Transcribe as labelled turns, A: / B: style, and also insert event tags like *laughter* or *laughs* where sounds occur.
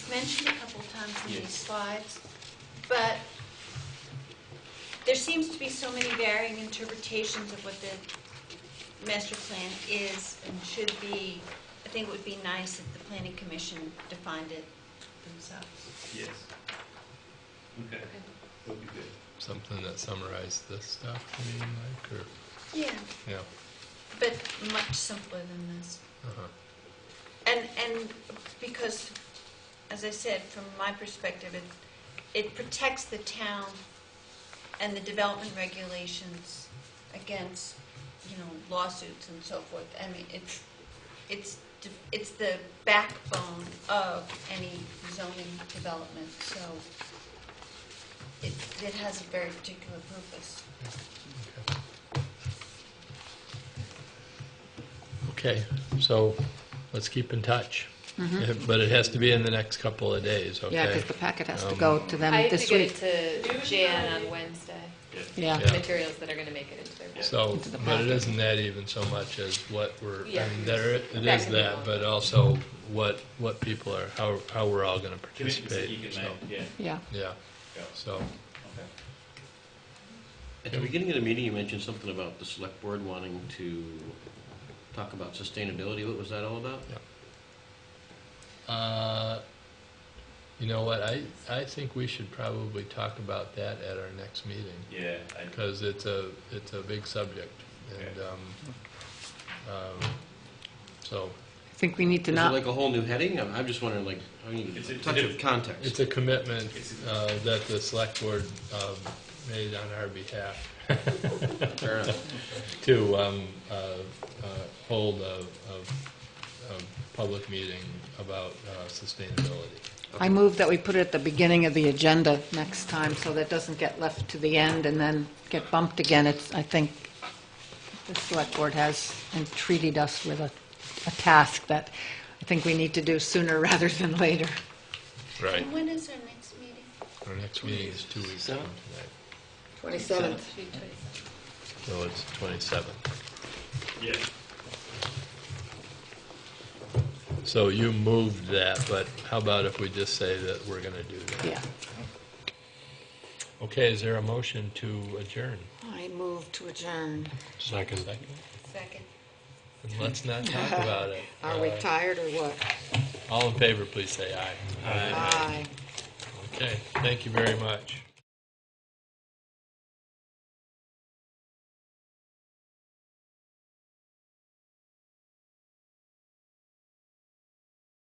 A: mentioned a couple times in these
B: Yes.
A: slides, but there seems to be so many varying interpretations of what the master plan is and should be. I think it would be nice if the planning commission defined it themselves.
B: Yes. Okay, that'd be good.
C: something that summarized this stuff, you mean, like, or,
A: Yeah.
C: yeah,
A: But much simpler than this.
C: uh-huh,
A: And, and because, as I said, from my perspective, it, it protects the town and the development regulations against, you know, lawsuits and so forth. I mean, it's, it's, de- it's the backbone of any zoning development, so it, it has a very particular purpose.
C: uh-huh, okay. Okay, so let's keep in touch, but it has to be in the next couple of days, okay?
D: Yeah, because the packet has to
C: Um,
D: go to them
E: I have to
D: this
E: get
D: week.
E: it to Jan on Wednesday,
D: Yeah,
C: Yeah.
E: materials that are gonna make it into their book.
C: So,
D: Into the
C: but it
D: packet.
C: isn't that even so much as what we're, I
E: Yeah.
C: mean, there, it
E: That
C: is
E: can be
C: that,
E: long.
C: but also what, what people are, how, how we're all gonna
B: Commitments that you
C: participate,
B: can
C: so,
B: make, yeah.
D: yeah.
C: yeah,
B: Yeah.
C: so,
B: Okay.
F: At the beginning of the meeting, you mentioned something about the select board wanting to talk about sustainability. What was that all about?
C: uh, you know what, I, I think we should probably talk about that at our next meeting.
B: Yeah, I-
C: because it's a, it's a big subject, and, um, um, so,
D: I think we need to
F: Is it
D: not,
F: like a whole new heading? I'm I'm just wondering, like, I need
B: It's
F: a
B: a-
F: touch of
C: it's
F: context.
C: a commitment, uh, that the select board, um, made on our behalf
F: Fair enough.
C: to, um, uh, uh, hold a, a, a public meeting about, uh, sustainability.
D: I move that we put it at the beginning of the agenda next time, so that doesn't get left to the end and then get bumped again. It's, I think, the select board has entreated us with a, a task that I think we need to do sooner *laughs* rather than later.
C: Right.
A: And when is our next meeting?
C: Our next meeting is two weeks from tonight,
D: Twenty-seventh.
E: Should be 27.
C: so it's twenty-seventh.
B: yeah,
C: So you moved that, but how about if we just say that we're gonna do that?
D: Yeah.
C: Okay, is there a motion to adjourn?
D: I move to adjourn.
C: Second.
A: Second.
C: And let's not talk about it. Uh,
D: tired or what?
C: All in favor, please say aye.
D: Aye.
C: Okay, thank you very much.